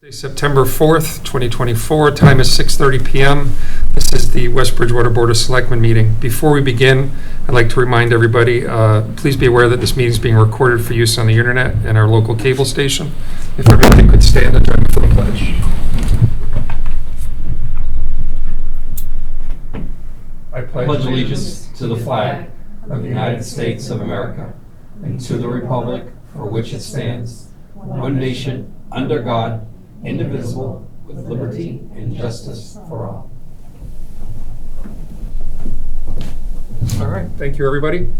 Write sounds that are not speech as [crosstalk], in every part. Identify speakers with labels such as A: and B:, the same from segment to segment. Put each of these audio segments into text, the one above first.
A: Tuesday, September 4th, 2024, time is 6:30 PM. This is the West Bridgewater Board of Selectmen meeting. Before we begin, I'd like to remind everybody, uh, please be aware that this meeting is being recorded for use on the internet and our local cable station. If everybody could stand and join me for the pledge. I
B: pledge allegiance to the flag of the United States of America and to the republic for which it stands, one nation, under God, indivisible, with liberty and justice for all.
A: All right, thank you, everybody.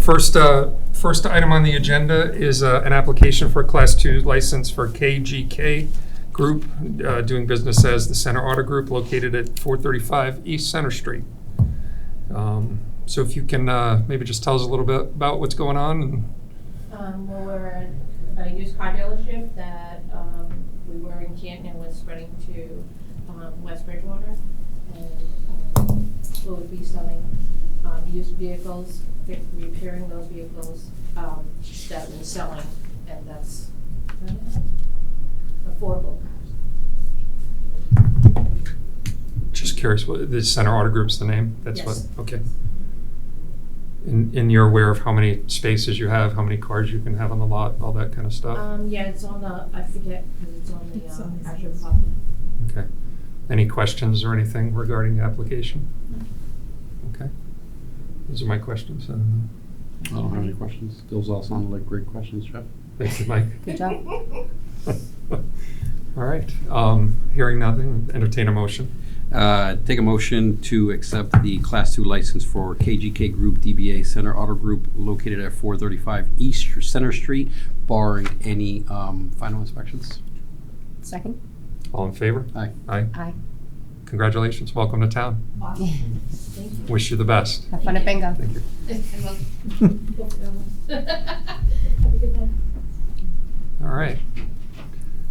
A: First, uh, first item on the agenda is uh, an application for a Class 2 license for KGK Group, uh, doing business as the Center Auto Group, located at 435 East Center Street. Um, So if you can, uh, maybe just tell us a little bit about what's going on and
C: Um, well, we're a used car dealership that, um, we were in Canton and was spreading to, um, West Bridgewater. And, um, we would be selling, um, used vehicles, fi- repairing those vehicles, um, that we're selling, and that's uh, affordable cars.
A: just curious, what, the Center Auto Group's the name? That's what.
C: Yes.
A: Okay. And and you're aware of how many spaces you have, how many cars you can have on the lot, all that kind of stuff?
C: Um, yeah, it's on the, I forget, because it's on
D: It's
C: the,
D: on
C: um,
D: the
C: actual
D: sales.
C: copy.
A: Okay. Any questions or anything regarding the application? Okay. Those are my questions. I don't know.
E: I don't have any questions. Those all sounded like great questions, Jeff.
A: Thank you, Mike.
D: Good job.
A: [laughs] All right. Um, Hearing nothing, entertain a motion.
E: Uh, Take a motion to accept the Class II license for KGK Group DBA Center Auto Group located at 435 East Center Street, barring any um, final inspections.
D: Second?
A: All in favor?
E: Aye.
A: Aye.
D: Aye.
A: Congratulations. Welcome to town.
C: Awesome, thank you.
A: Wish you the best.
D: Have fun at bingo.
A: Thank you.
C: [laughs] Have a good night.
A: All right.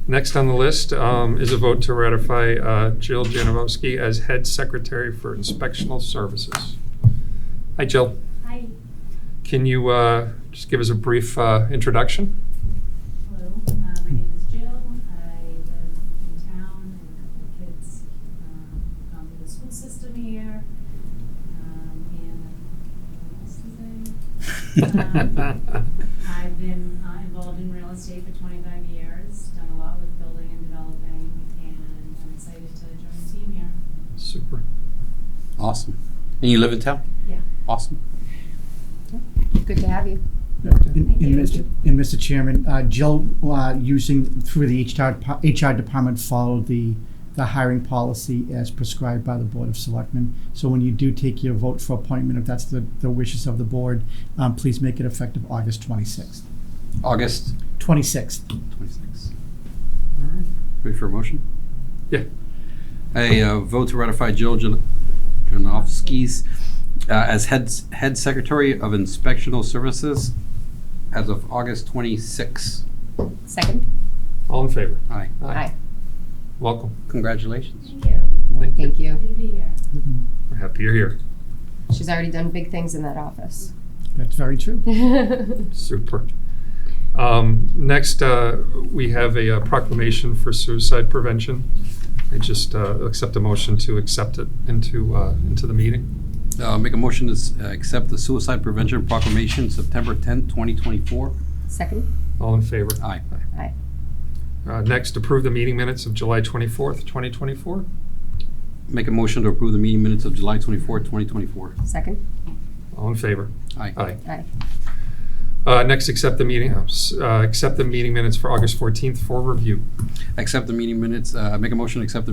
A: Next on the list um, is a vote to ratify uh, Jill Janowski as head secretary for inspectional services. Hi, Jill.
C: Hi.
A: Can you uh, just give us a brief uh, introduction?
F: Hello, uh, my name is Jill. I live in town and have my kids um, gone through the school system here. Um, and uh, what else is there? I've been uh, involved in real estate for 25 years, done a lot with building and developing, and I'm excited to join the team here.
A: Super.
E: Awesome. And you live in town?
F: Yeah.
E: Awesome.
D: Good to have you.
G: And
F: Thank
G: and
F: you.
G: Mr. and Mr. Chairman, uh, Jill, uh, using, through the HR, depa- HR department, followed the, the hiring policy as prescribed by the Board of Selectmen. So when you do take your vote for appointment, if that's the, the wishes of the board, um, please make it effective August 26th.
E: August
G: 26th.
E: 26. Ready for a motion?
A: Yeah.
E: A uh, vote to ratify Jill Jan- Janowski's uh, as head, head secretary of inspectional services as of August 26.
D: Second?
A: All in favor?
E: Aye.
D: Aye.
A: Welcome.
E: Congratulations.
F: Thank you.
A: Thank you.
D: Thank
F: Happy
D: you.
F: to be here.
A: We're happy you're here.
D: She's already done big things in
A: [laughs]
D: that office.
G: That's very true.
A: Super. Um, Next, uh, we have a uh, proclamation for suicide prevention. I just uh, accept a motion to accept it into, uh, into the meeting.
E: Uh, Make a motion to s- uh, accept the suicide prevention proclamation, September 10, 2024.
D: Second?
A: All in favor?
E: Aye.
D: Aye.
A: Uh, Next, approve the meeting minutes of July 24th, 2024.
E: Make a motion to approve the meeting minutes of July 24, 2024.
D: Second?
A: All in favor?
E: Aye.
A: Aye.
D: Aye.
A: Uh, Next, accept the meeting, uh, s- uh, accept the meeting minutes for August 14th for review.
E: Accept the meeting minutes, uh, make a motion to accept the